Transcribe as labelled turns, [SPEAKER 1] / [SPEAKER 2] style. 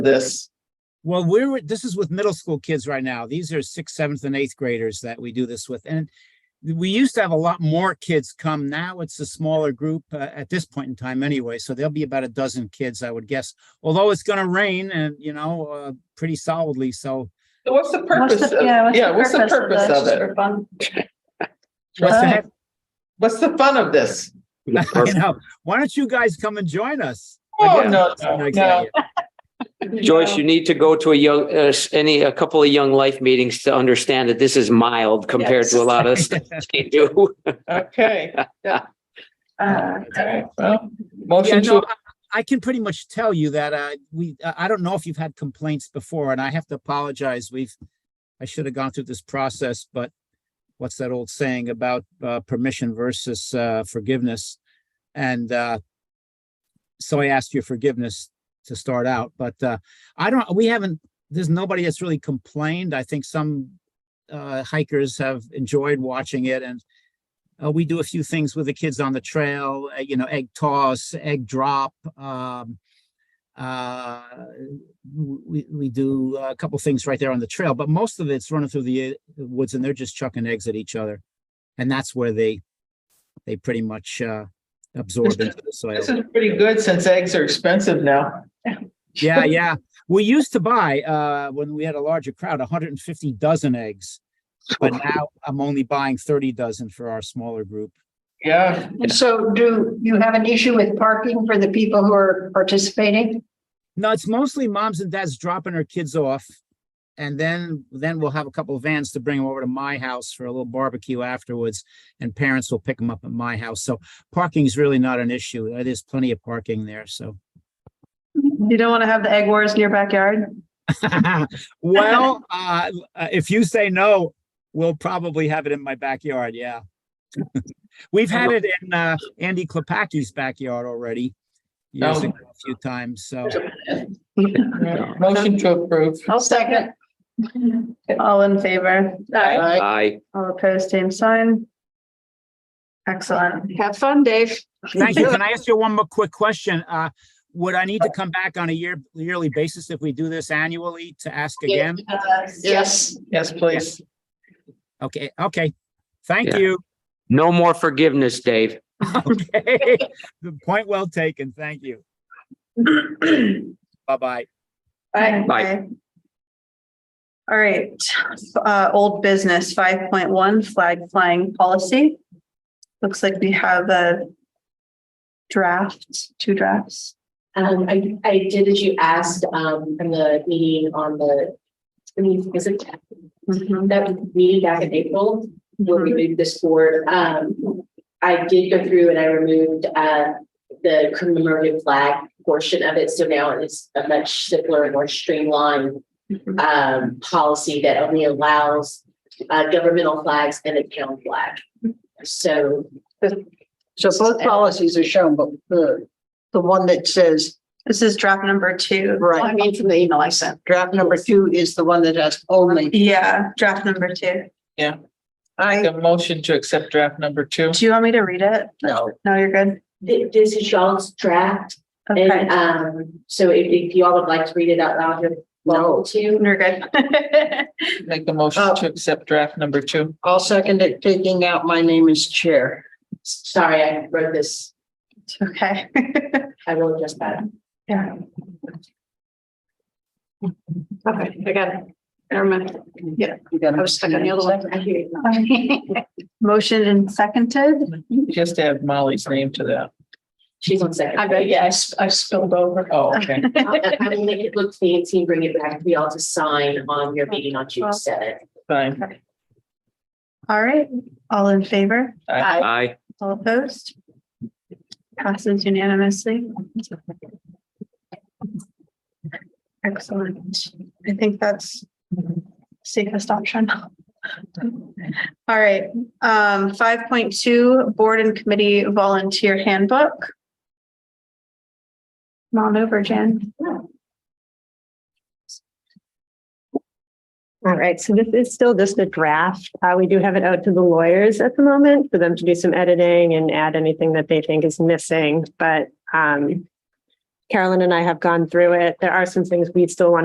[SPEAKER 1] this.
[SPEAKER 2] Well, we're, this is with middle school kids right now. These are sixth, seventh and eighth graders that we do this with. And we used to have a lot more kids come. Now it's a smaller group uh, at this point in time anyway. So there'll be about a dozen kids, I would guess. Although it's going to rain and, you know, uh, pretty solidly. So
[SPEAKER 1] So What's the
[SPEAKER 3] What's
[SPEAKER 1] purpose?
[SPEAKER 3] the-
[SPEAKER 1] of-
[SPEAKER 3] Yeah,
[SPEAKER 1] what's the purpose
[SPEAKER 3] that?
[SPEAKER 1] of
[SPEAKER 3] Just
[SPEAKER 1] it?
[SPEAKER 3] for fun.
[SPEAKER 2] what's the
[SPEAKER 3] Right.
[SPEAKER 2] heck?
[SPEAKER 1] What's the fun of this?
[SPEAKER 2] You know, why don't you guys come and join us?
[SPEAKER 1] Oh,
[SPEAKER 2] Yeah.
[SPEAKER 1] no,
[SPEAKER 2] That's a
[SPEAKER 1] no,
[SPEAKER 2] nice
[SPEAKER 1] no.
[SPEAKER 2] idea.
[SPEAKER 4] Joyce, you need to go to a young, uh, s- any, a couple of young life meetings to understand that this is mild compared to a lot of stuff they do.
[SPEAKER 1] Okay.
[SPEAKER 3] Uh,
[SPEAKER 1] Okay, well,
[SPEAKER 2] Yeah,
[SPEAKER 1] motion
[SPEAKER 2] no,
[SPEAKER 1] to,
[SPEAKER 2] I I can pretty much tell you that uh, we, I I don't know if you've had complaints before, and I have to apologize. We've, I should have gone through this process, but what's that old saying about uh, permission versus uh, forgiveness? And uh, so I asked your forgiveness to start out, but uh, I don't, we haven't, there's nobody that's really complained. I think some uh, hikers have enjoyed watching it and uh, we do a few things with the kids on the trail, uh, you know, egg toss, egg drop. Um, uh, w- we, we do a couple things right there on the trail, but most of it's running through the uh, woods and they're just chucking eggs at each other. And that's where they, they pretty much, uh, absorb
[SPEAKER 1] This-
[SPEAKER 2] into the soil.
[SPEAKER 1] this is pretty good since eggs are expensive now.
[SPEAKER 2] Yeah, yeah. We used to buy, uh, when we had a larger crowd, hundred and fifty dozen eggs. But now I'm only buying thirty dozen for our smaller group.
[SPEAKER 1] Yeah,
[SPEAKER 3] So do you have an issue with parking for the people who are participating?
[SPEAKER 2] No, it's mostly moms and dads dropping their kids off. And then, then we'll have a couple of vans to bring them over to my house for a little barbecue afterwards. And parents will pick them up at my house. So parking is really not an issue. Uh, There's plenty of parking there, so.
[SPEAKER 3] You don't want to have the egg wars in your backyard?
[SPEAKER 2] Well, uh, l- uh, if you say no, we'll probably have it in my backyard, yeah. We've had it in, uh, Andy Klepacki's backyard already. Years
[SPEAKER 1] Oh.
[SPEAKER 2] ago, a few times, so.
[SPEAKER 1] yeah. motion to approve.
[SPEAKER 3] I'll second. All in favor?
[SPEAKER 1] Aye.
[SPEAKER 4] I,
[SPEAKER 3] All opposed, same sign. Excellent. Have fun, Dave.
[SPEAKER 2] Thank you. Can I ask you one more quick question? Uh, would I need to come back on a year, yearly basis if we do this annually to ask again?
[SPEAKER 3] Yes.
[SPEAKER 1] Yes, please.
[SPEAKER 2] Okay, okay. Thank
[SPEAKER 4] Yeah.
[SPEAKER 2] you.
[SPEAKER 4] no more forgiveness, Dave.
[SPEAKER 2] Okay. The point well taken. Thank you. Bye-bye.
[SPEAKER 3] Bye.
[SPEAKER 4] Bye.
[SPEAKER 3] All right, uh, old business five point one flag flying policy. Looks like we have a draft, two drafts.
[SPEAKER 5] Um, I, I did as you asked, um, from the meeting on the, I mean, is it Mm-hmm.
[SPEAKER 3] Mhm.
[SPEAKER 5] that meeting back in April where we moved this forward? Um, I did go through and I removed, uh, the commemorative flag portion of it. So now it's a much simpler and more streamlined um, policy that only allows uh, governmental flags and a town flag. So
[SPEAKER 6] So both policies are shown, but the, the one that says
[SPEAKER 3] This is draft number two.
[SPEAKER 6] Right.
[SPEAKER 7] I mean, from the email I sent.
[SPEAKER 6] draft number two is the one that has only,
[SPEAKER 3] Yeah, draft number two.
[SPEAKER 6] I,
[SPEAKER 1] The motion to accept draft number two.
[SPEAKER 3] Do you want me to read it?
[SPEAKER 6] no,
[SPEAKER 3] No, you're good.
[SPEAKER 5] thi- this is y'all's draft
[SPEAKER 3] Okay,
[SPEAKER 5] And um, so if if y'all would like to read it out loud, you're welcome to.
[SPEAKER 3] you're good.
[SPEAKER 1] Make the motion
[SPEAKER 6] Oh.
[SPEAKER 1] to accept draft number two.
[SPEAKER 6] I'll second it, taking out my name as chair.
[SPEAKER 5] Sorry, I wrote this.
[SPEAKER 3] It's Okay.
[SPEAKER 5] I will adjust that.
[SPEAKER 3] Yeah.
[SPEAKER 7] Okay, I got it. Never mind. Yeah,
[SPEAKER 6] You got
[SPEAKER 7] I
[SPEAKER 6] it?
[SPEAKER 7] was stuck on the other one.
[SPEAKER 5] I hear you.
[SPEAKER 3] Motion and seconded.
[SPEAKER 1] Just add Molly's name to that.
[SPEAKER 5] She's on second.
[SPEAKER 7] I bet, yeah, I s- I spilled over.
[SPEAKER 1] Oh, okay.
[SPEAKER 5] I I will make it look fancy and bring it back for y'all to sign on your meeting on June seventh.
[SPEAKER 1] Fine.
[SPEAKER 3] All right, all in favor?
[SPEAKER 1] Aye.
[SPEAKER 4] I,
[SPEAKER 3] All opposed? Passes unanimously. Excellent. I think that's safest option. All right, um, five point two, board and committee volunteer handbook. Come on over, Jen.
[SPEAKER 8] All right, so this is still just a draft. Uh, we do have it out to the lawyers at the moment for them to do some editing and add anything that they think is missing, but, um,
[SPEAKER 5] Carolyn and I have gone through it. There are some things we still want